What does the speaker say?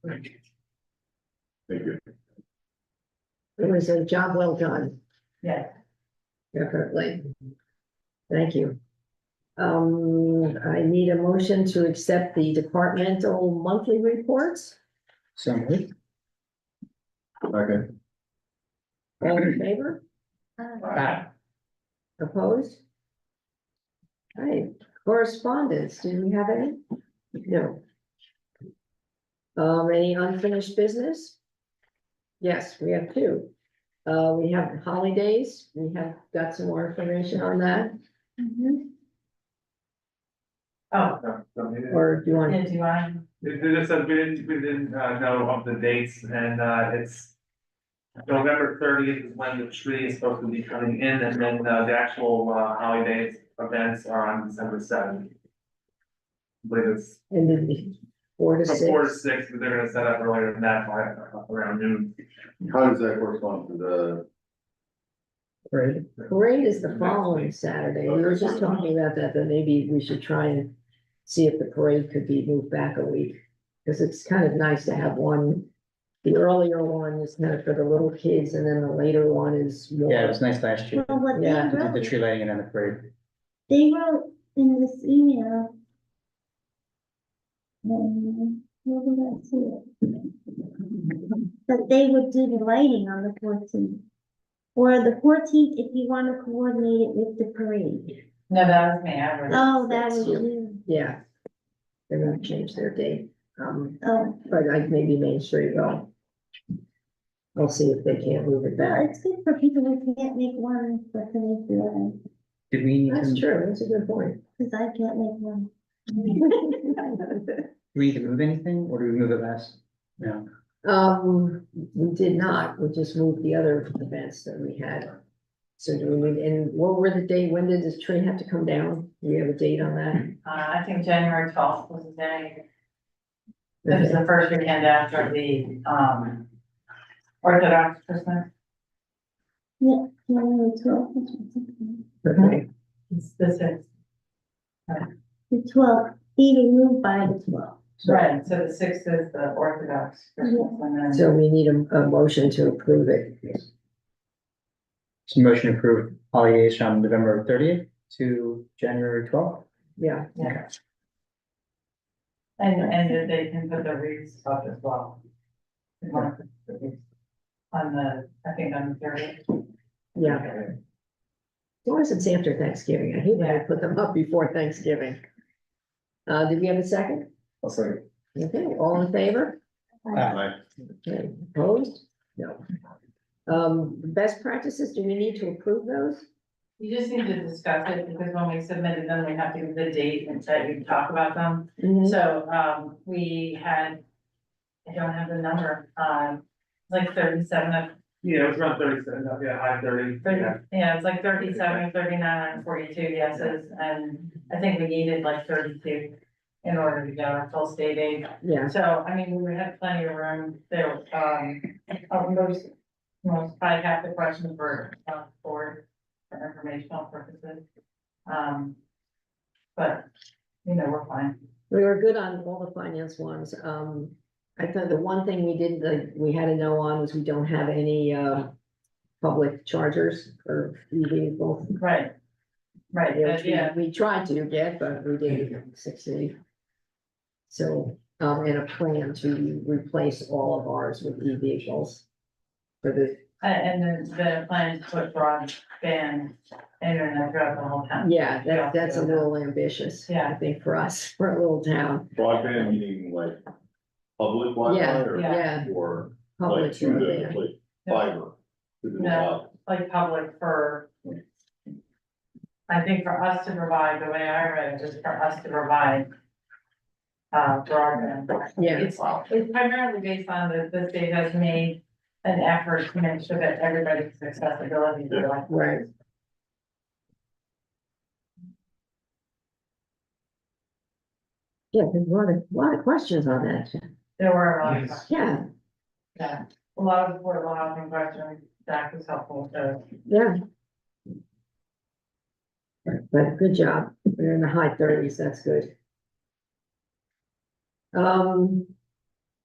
Thank you. Thank you. It was a job well done, Yeah, definitely. Thank you. Um, I need a motion to accept the departmental monthly reports. Okay. All in favor? Aye. Opposed? All right, correspondence, do we have any? No. Um, any unfinished business? Yes, we have two. Uh, we have holidays, we have got some more information on that, Oh, or do you want? yeah, do I? They they just said we didn't, we didn't uh know of the dates and uh it's. November thirtieth is when the tree is supposed to be coming in and then uh the actual uh holidays uh, events are on December seventh. I believe it's And then the four to from four to six, six, but they're gonna set up earlier than that, by uh, around noon. How does that correspond to the? parade is the following Saturday, we were just talking about that, that maybe we should try and. See if the parade could be moved back a week, because it's kind of nice to have one. The earlier one is kind of for the little kids, and then the later one is Yeah, it more, was nice last year. Well, what they Yeah, We did the wrote, tree lighting and then the parade. they wrote in this email. um, where did I see it? That they would do the lighting on the fourteenth. Or the fourteenth, if you want to coordinate it with the parade. No, that was me, I wrote. it. Um, Oh, that was you. yeah. They're gonna change their date, um, Oh, but like maybe Main Street will. I'll see if they can't move it well, back, it's good for people who can't make one, but can make the other, Did we need to, that's did true, that's a good point. because I can't make one. we need to move anything or did we move it last? No, Um, we did not, we just moved the other events that we had. So do we, need- and what were the date, when did this tree have to come down? Do we have a date on that? Uh, I think January twelfth was the day, it was the first weekend after the, um, Orthodox Christmas. January twelfth, which is okay. Okay, It's This is, The twelfth, be removed by the twelfth. right, so the sixth is the Orthodox Christmas and then, so we need a, a motion to approve it. so motion approved holidays from November thirtieth to January twelfth. Yeah, yeah. And, and that they can put the wreaths up as well. They want to put the wreaths On the, I think on the thirtieth. yeah. As long as it's after Thanksgiving, I hate when I put them up before Thanksgiving. Uh, did we have a second? I'll say. Okay, all in favor? Okay, opposed? No. Um, best practices, do we need to approve those? You just need to discuss it because when we submitted them, we have to give the date and that you talk about them. Mm-hmm. So, um, we had, I don't have the number, um, like thirty-seven of, Yeah, it was around thirty seven, yeah, high thirty, yeah. thirty, yeah, it's like thirty-seven, thirty-nine, forty-two yeses. And I think we needed like thirty-two in order to get our full state aid. Yeah, So, I mean, we had plenty of room there, um, uh, most, most, probably half the questions were, uh, for, for informational purposes. Um, but, you know, we're fine. we were good on all the finance ones. Um, I thought the one thing we didn't, like, we had to know on was we don't have any, uh, public chargers or e-vehicles. Right. Right, which but we- yeah, We tried to get, but we didn't succeed. So, um, and a plan to replace all of ours with e-vehicles for the a- Uh, and then the plan is to put broadband internet throughout the whole town. Yeah, that, Yeah. that's a little ambitious, I Yeah. think, for us, for a little town, Broadband meaning like public Wi-Fi Yeah, or? yeah. Or like public. to the, broadband. like fiber? to the No. Like public for. I think for us to provide, the way I read it is for us to provide. Uh, broadband. Yeah. It's, it's primarily based on the, the state has made an effort to make sure that everybody's accessibility to like. Right. Yeah, there's a lot of, lot of questions on that, There were a lot of, Yes. yeah, yeah, a lot of affordable housing questions, that was helpful, so. yeah. But good job, we're in the high thirties, that's good. Um,